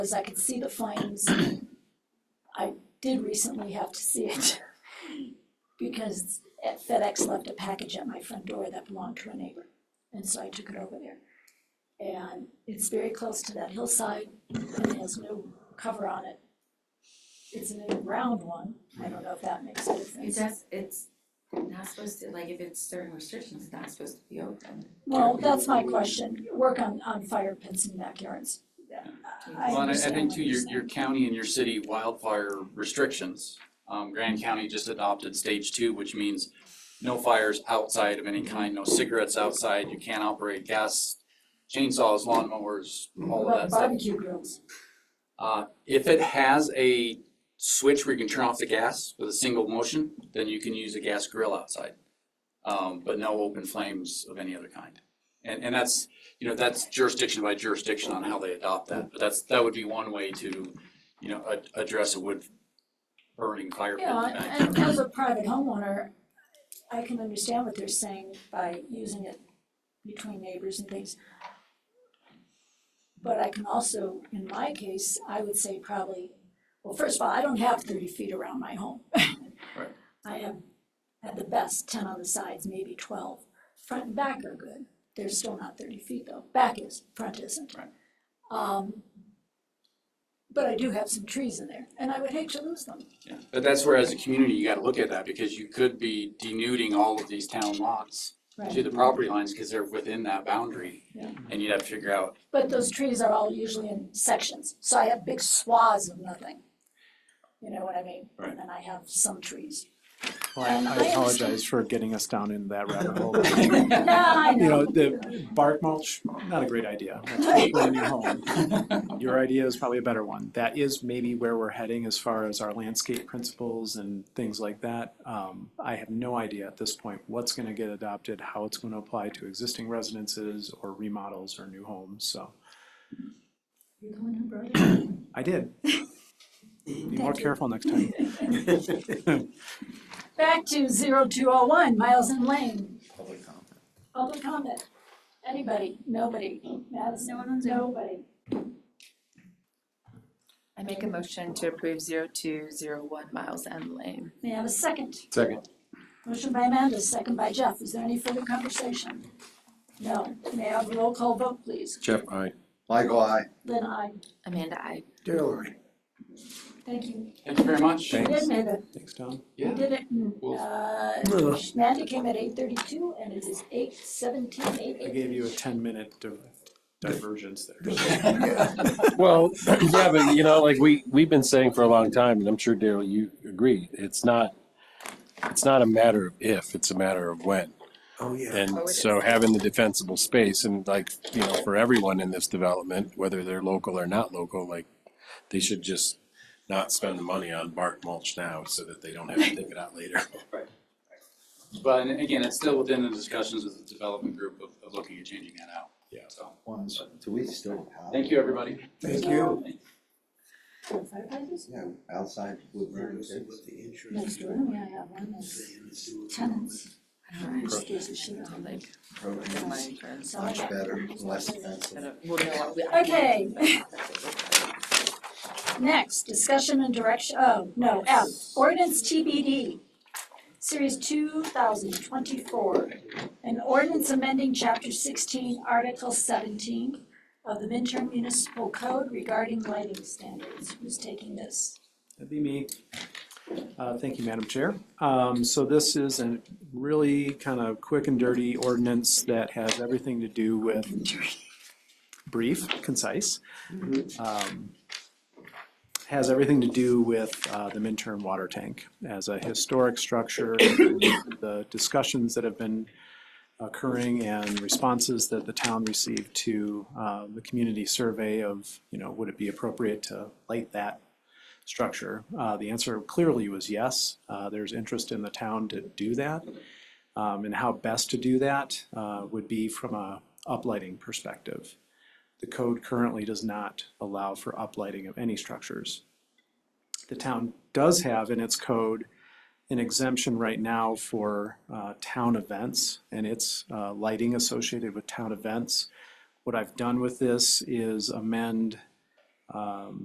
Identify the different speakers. Speaker 1: because I could see the flames. I did recently have to see it because at FedEx left a package at my front door that belonged to a neighbor. And so I took it over there. And it's very close to that hillside and it has no cover on it. It's an underground one. I don't know if that makes a
Speaker 2: It
Speaker 1: difference.
Speaker 2: does, it's not supposed to, like, if it's certain restrictions, it's not supposed to be open.
Speaker 1: Well, that's my question. Work on, on fire pits in backyards. I
Speaker 3: Well, and I, I
Speaker 1: understand
Speaker 3: think
Speaker 1: what
Speaker 3: too,
Speaker 1: you're
Speaker 3: your,
Speaker 1: saying.
Speaker 3: your county and your city wildfire restrictions. Um, Grand County just adopted stage two, which means no fires outside of
Speaker 1: Mm-hmm.
Speaker 3: any kind, no cigarettes outside, you can't operate gas, chainsaws, lawnmowers, all of
Speaker 1: About
Speaker 3: that stuff.
Speaker 1: Barbecue grills.
Speaker 3: Uh, if it has a switch where you can turn off the gas with a single motion, then you can use a gas grill outside. Um, but no open flames of any other kind. And, and that's, you know, that's jurisdiction by jurisdiction on how they adopt that, but that's, that would be one way to, you know, a- address a wood burning fire pit in the
Speaker 1: Yeah, and
Speaker 3: backyard.
Speaker 1: as a private homeowner, I can understand what they're saying by using it between neighbors and things. But I can also, in my case, I would say probably, well, first of all, I don't have thirty feet around my home.
Speaker 3: Right.
Speaker 1: I have, at the best, ten on the sides, maybe twelve. Front and back are good. They're still not thirty feet though. Back is, front isn't.
Speaker 3: Right.
Speaker 1: Um, but I do have some trees in there and I would hate to lose them.
Speaker 3: Yeah. But that's where as a community, you gotta look at that, because you could be denuding all of these town lots to
Speaker 1: Right,
Speaker 3: the property lines, cause they're within that boundary.
Speaker 1: Yeah.
Speaker 3: And you'd have to figure out
Speaker 1: but those trees are all usually in sections, so I have big swaths of nothing. You know what I mean?
Speaker 3: Right.
Speaker 1: And I have some trees.
Speaker 4: Well, I- I
Speaker 1: Um, I
Speaker 4: apologize for getting us down in that rabbit hole.
Speaker 1: No, I
Speaker 4: You know,
Speaker 1: know.
Speaker 4: the bark mulch, not a great idea. When you're home. Your idea is probably a better one. That is maybe where we're heading as far as our landscape principles and things like that. Um, I have no idea at this point what's gonna get adopted, how it's gonna apply to existing residences or remodels or new homes, so.
Speaker 2: You going to Brody?
Speaker 4: I did. Be more
Speaker 1: Thank you.
Speaker 4: careful next time.
Speaker 1: Back to zero two oh one, Miles and Lane,
Speaker 5: Public comment.
Speaker 1: public comment. Anybody, nobody, Madison,
Speaker 6: No one on Zoom.
Speaker 1: nobody.
Speaker 6: I make a motion to approve zero two zero one Miles End Lane.
Speaker 1: May I have a second?
Speaker 5: Second.
Speaker 1: Motion by Amanda, second by Jeff. Is there any further conversation? No. May I have a roll call vote, please?
Speaker 5: Jeff, aye. Michael, aye.
Speaker 1: Lynn, I.
Speaker 6: Amanda, I.
Speaker 5: Daryl, aye.
Speaker 1: Thank you.
Speaker 3: Thank you very much.
Speaker 1: We
Speaker 4: Thanks.
Speaker 1: did make a
Speaker 4: Thanks, Tom.
Speaker 1: We
Speaker 3: Yeah.
Speaker 1: did it, in,
Speaker 3: Well-
Speaker 1: uh,
Speaker 4: Ugh.
Speaker 1: Amanda came at eight thirty-two and it is eight seventeen, eight
Speaker 4: I
Speaker 1: eight.
Speaker 4: gave you a ten-minute divergence there.
Speaker 7: Well, yeah, but you know, like we, we've been saying for a long time, and I'm sure Daryl, you agree, it's not, it's not a matter of if, it's a matter of when.
Speaker 5: Oh, yeah.
Speaker 7: And so having the defensible space and like, you know, for everyone in this development, whether they're local or not local, like they should just not spend the money on bark mulch now so that they don't have to take it out later.
Speaker 3: But and again, it's still within the discussions with the development group of, of looking at changing that out.
Speaker 7: Yeah.
Speaker 3: So,
Speaker 5: Ones, do we still have?
Speaker 3: thank you, everybody.
Speaker 1: Thank you.
Speaker 5: Yeah, outside wood burning pits.
Speaker 1: Next door, we have Oh, one that's tenants. Excuse the shit out of
Speaker 6: Like,
Speaker 5: Programs,
Speaker 2: My friends.
Speaker 1: it.
Speaker 5: much better, less offensive.
Speaker 2: We'll know what we-
Speaker 1: Okay. Next, discussion and direction, oh, no, F, ordinance TBD, series two thousand twenty-four. An ordinance amending chapter sixteen, article seventeen of the Minturn Municipal Code regarding lighting standards. Who's taking this?
Speaker 4: That'd be me. Uh, Thank you, Madam Chair. Um, So this is a really kind of quick and dirty ordinance that has everything to do with brief, concise. Um, Has everything to do with uh, the Minturn water tank as a historic structure. The discussions that have been occurring and responses that the town received to uh, the community survey of, you know, would it be appropriate to light that structure? Uh, the answer clearly was yes. Uh, there's interest in the town to do that. Um, and how best to do that uh, would be from a uplighting perspective. The code currently does not allow for uplighting of any structures. The town does have in its code an exemption right now for uh, town events and its uh, lighting associated with town events. What I've done with this is amend uh, Um,